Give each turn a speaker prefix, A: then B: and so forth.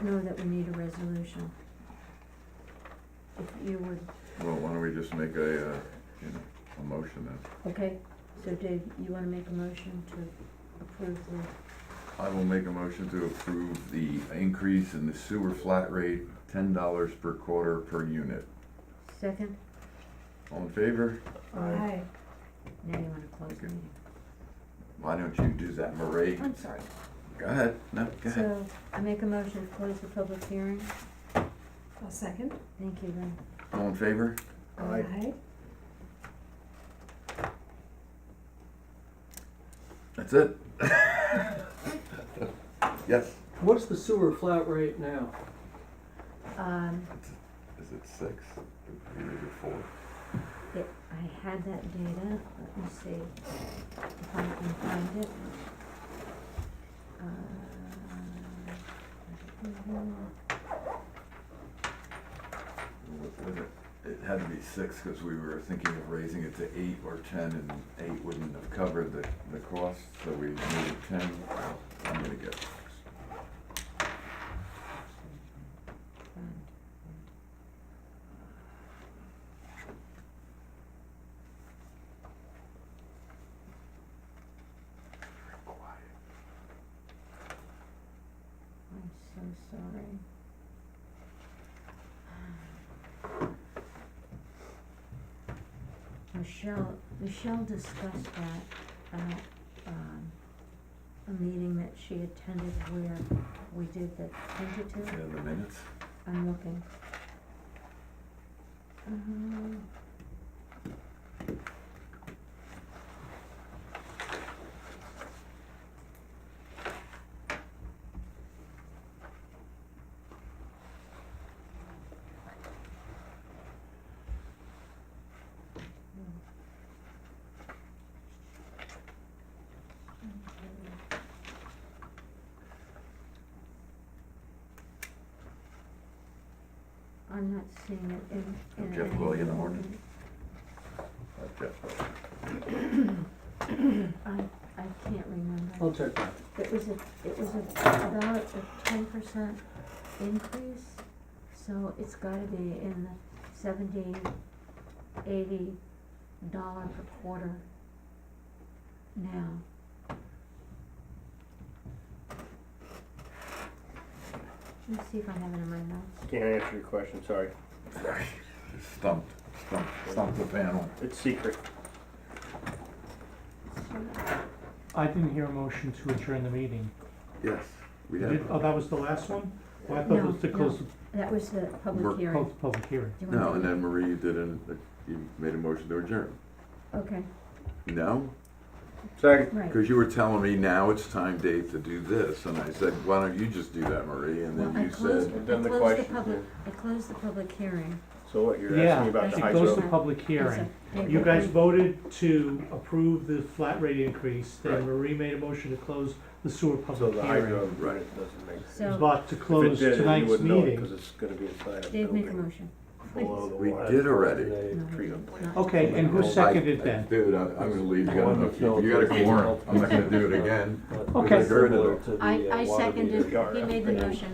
A: know that we need a resolution. If you would,
B: Well, why don't we just make a, uh, you know, a motion then?
A: okay, so Dave, you wanna make a motion to approve the,
B: I will make a motion to approve the increase in the sewer flat rate, ten dollars per quarter per unit.
A: second?
B: All in favor?
A: Aye. Now you wanna close the meeting.
B: Why don't you do that, Marie?
A: I'm sorry.
B: Go ahead, no, go ahead.
A: So, I make a motion to close the public hearing.
C: A second?
A: Thank you, Lynn.
B: All in favor?
A: Aye.
B: That's it? Yes.
D: What's the sewer flat rate now?
A: Um,
B: Is it six? Or is it four?
A: it, I had that data, let me see if I can find it. Uh,
B: What was it? It had to be six, cause we were thinking of raising it to eight or ten, and eight wouldn't have covered the, the cost, so we needed ten. I'm gonna get six.
A: Uh,
B: Quiet.
A: I'm so sorry. Michelle, Michelle discussed that at, um, a meeting that she attended where we did the
B: Yeah,
A: tentative,
B: the minutes?
A: I'm looking. Um, I'm not seeing it in,
B: Oh,
A: in.
B: Jeff
A: any
B: William
A: of the-
B: Morton. Okay.
A: I, I can't remember.
D: I'll check that.
A: It was a, it was a, about a ten percent increase, so it's gotta be in the seventy, eighty dollar per quarter now. Let me see if I have it in my notes.
E: Can't answer your question, sorry.
B: Sorry. Stumped, stumped, stumped the panel.
E: It's secret.
F: I didn't hear a motion to adjourn the meeting.
B: Yes, we
F: You
B: have.
F: did- Oh, that was the last one? Well, I thought it was to
A: No,
F: close the
A: That was the
B: We're-
A: public hearing.
F: pub- public hearing.
A: Do you
B: No,
A: want
B: and
A: to-
B: then Marie did an, you made a motion to adjourn.
A: Okay,
B: No?
E: Second.
A: right.
B: Because you were telling me now it's time, Dave, to do this, and I said, why don't you just do that, Marie? And
A: Well, I
B: then you
A: closed,
B: said,
A: I
E: And then the
A: closed the
E: question,
A: public, I closed the public hearing.
E: So what, you're
F: Yeah,
E: asking about the
F: it
E: high
F: goes to
A: road.
F: public hearing.
A: Yes,
F: You
A: I-
F: guys voted to approve the flat rate increase,
E: Right.
F: then Marie made a motion to close the sewer
E: So
F: public
E: the high
F: hearing.
E: road, right, it doesn't make.
F: It was
A: So,
F: about to
E: If
F: close
E: it did, you
F: tonight's
E: wouldn't know it,
F: meeting.
E: Cause it's gonna be inside a
A: Dave, make a
E: building
A: motion.
E: below the
B: We
E: water.
B: did already.
A: No, we did
E: Treatment plant.
A: not.
F: Okay, and who
B: I-
F: seconded
B: I-
F: then?
B: Dude, I'm, I'm gonna leave, you got
G: One
B: enough,
G: to kill,
B: you got a
G: three to
B: quorum,
G: kill.
B: I'm not gonna do it again.
G: But
F: Okay.
G: Similar to the,
A: I,
G: uh,
A: I
G: water meter.
A: seconded,
E: meter.
A: he made the motion.